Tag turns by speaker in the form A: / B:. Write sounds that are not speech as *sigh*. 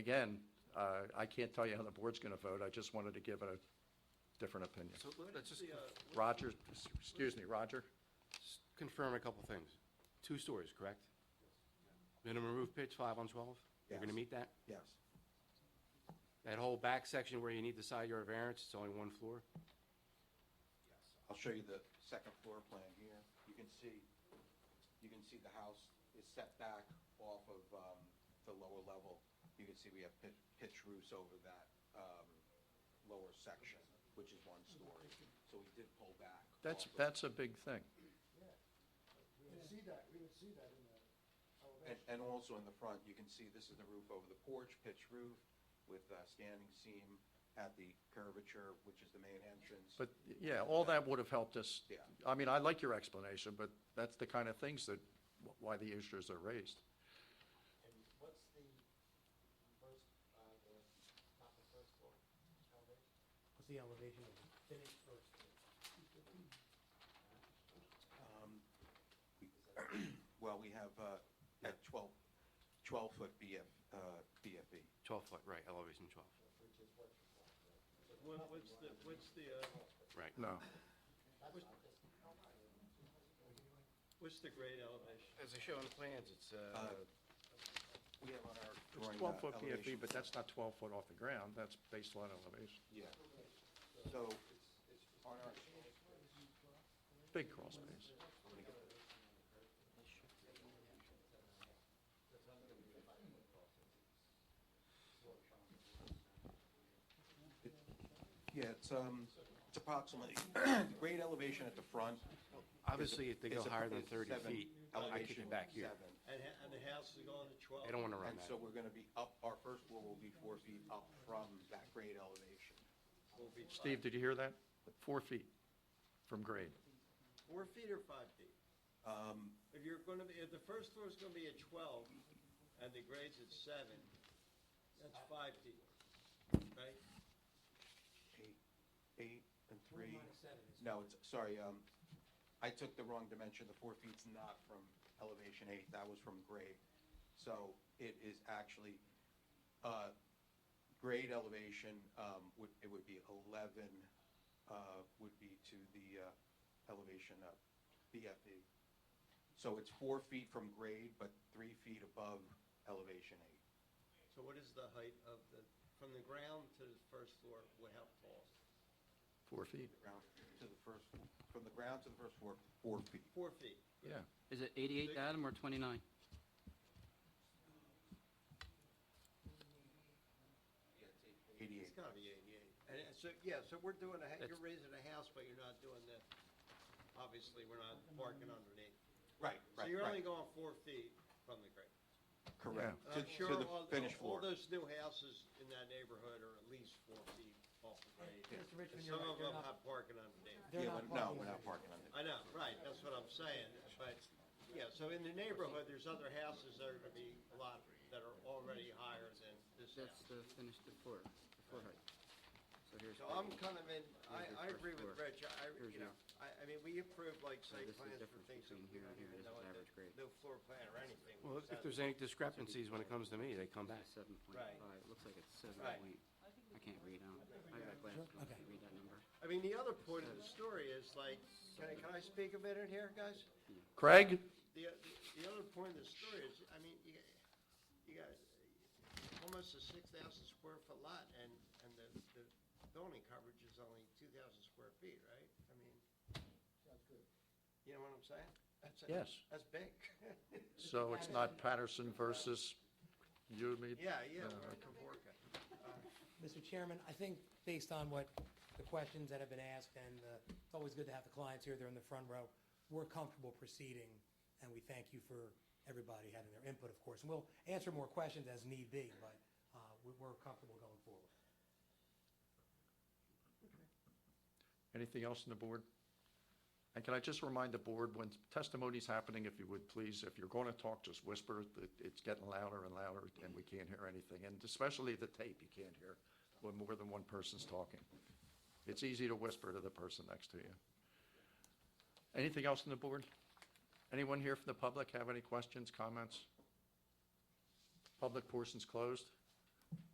A: Again, uh, I can't tell you how the board's going to vote, I just wanted to give a different opinion.
B: So let- uh, let's just
A: Roger, excuse me, Roger?
B: s- confirm a couple things. Two stories, correct? Minimum roof pitch, five on 12? You're going to
C: Yes.
B: meet that?
C: Yes,
B: That whole back section where you need the side yard variance, it's only one floor?
C: I'll show you the second floor plan here. You can see, you can see the house is set back off of um, the lower level. You can see we have pit- pitch roofs over that um, lower section, which is one story. So we did pull back.
A: That's,
C: off of-
A: that's a big thing.
D: We would see that, we would see that in the
C: And,
D: elevation.
C: and also in the front, you can see this is the roof over the porch, pitch roof with uh, standing seam at the curvature, which is the main entrance.
A: But, yeah, all that would have helped us.
C: Yeah.
A: I mean, I like your explanation, but that's the kind of things that, why the issues are raised.
D: And what's the first, uh, the, not the first floor elevation? What's the elevation of the finished first floor?
C: Um, Well, we have uh, at 12, 12-foot BF, uh, BFE.
B: 12 foot, right, elevation 12.
E: What, what's the, what's the, uh,
B: Right.
A: No,
E: what's the grade elevation?
B: As I show on the plans, it's,
C: Uh, We have on our
A: it's
C: drawing. uh,
A: 12-foot PFE,
B: E,
C: elevation.
A: E, but that's not 12 foot off the ground, that's baseline elevation.
C: Yeah. So on our,
A: Big crawl space.
C: yeah, it's, um, it's approximately, the grade elevation at the front. is a-
B: Obviously, if they go
C: is a-
B: higher than
C: is
B: 30
C: seven,
B: feet, I kick
C: elevation
B: it back here.
C: seven.
E: And, ha- and the house is going to twelve?
B: They don't want to run
C: And so
B: that.
C: we're going to be up, our first floor will be four feet up from that grade elevation.
E: Will be five.
A: Steve, did you hear that? Four feet from grade.
E: Four feet or five feet?
C: Um,
E: If you're gonna be, if the first floor's gonna be at twelve and the grade's at seven, that's five feet, right?
C: Eight, eight and three. No, it's, sorry, um, I took the wrong dimension, the four feet's not from elevation eight, that was from grade. So it is actually, uh, grade elevation, um, would, it would be eleven, uh, would be to the, uh, elevation of BFE. So it's four feet from grade, but three feet above elevation eight.
E: So what is the height of the, from the ground to the first floor, what, how tall?
A: Four feet,
C: Ground to the first, from the ground to the first floor, four feet.
E: Four feet.
A: yeah.
F: Is it 88, Adam, or 29?
C: Eighty-eight.
E: It's gotta be eighty-eight. And and so, yeah, so we're doing a, ha- you're raising a house, but you're not doing the, obviously, we're not parking underneath.
C: Right,
E: So
C: right,
E: you're only
C: right.
E: going four feet from the grade.
C: Correct. To,
E: And I'm sure
C: Uh, to the
E: all,
C: finished
E: all
C: floor.
E: those new houses in that neighborhood are at least four feet off the grade.
D: Mr.
E: And
D: Richmond, you're
E: Some
D: right,
E: of
D: they're
E: them
D: not-
E: have parking underneath.
D: They're
C: Yeah,
D: not
C: but no,
D: parking
C: we're
D: on
C: not
D: it.
C: parking on it.
E: I know, right, that's what I'm saying, but, yeah, so in the neighborhood, there's other houses that are gonna be a lot, that are already higher than this
F: That's
E: house.
F: the finished, the floor, the floor height. So here's.
E: So I'm kind of in, I, I
F: Here's your first
E: agree with
F: floor.
E: Rich, I, I-
F: Here's
E: you know,
F: your-
E: I, I mean, we approve like site
F: this is the
E: plans for
F: difference
E: things that we
F: between here
E: don't
F: and here.
E: even
F: This
E: know,
F: is
E: and
F: average grade.
E: no floor plan or anything.
B: Well, if
E: Just have-
B: there's any discrepancies when it comes to me, they come back.
F: 7.5,
E: Right.
F: it looks like it's 7
E: Right.
F: point, I can't read out. I got glasses, on, I can't read that number.
E: I mean, the other point of the story is like, can I, can I speak a minute here, guys?
A: Craig?
E: The, the other point of the story is, I mean, you, got- you got almost a six thousand square foot lot and, and the, the building coverage is only two thousand square feet, right? I mean.
D: Sounds good.
E: You know what I'm saying? That's-
A: Yes.
E: That's big. *laughs*
A: So it's not Patterson versus you, me?
E: Yeah, yeah,
A: Uh,
E: we're in Caborca.
G: Mr. Chairman, I think based on what the questions that have been asked, and uh, it's always good to have the clients here, they're in the front row, we're comfortable proceeding, and we thank you for everybody having their input, of course. And we'll answer more questions as need be, but uh, we- we're comfortable going forward.
A: Anything else on the board? And can I just remind the board, when testimony's happening, if you would please, if you're going to talk, just whisper. It- It's getting louder and louder, and we can't hear anything. And especially the tape, you can't hear when more than one person's talking. It's easy to whisper to the person next to you. Anything else on the board? Anyone here from the public have any questions, comments? Public portion's closed.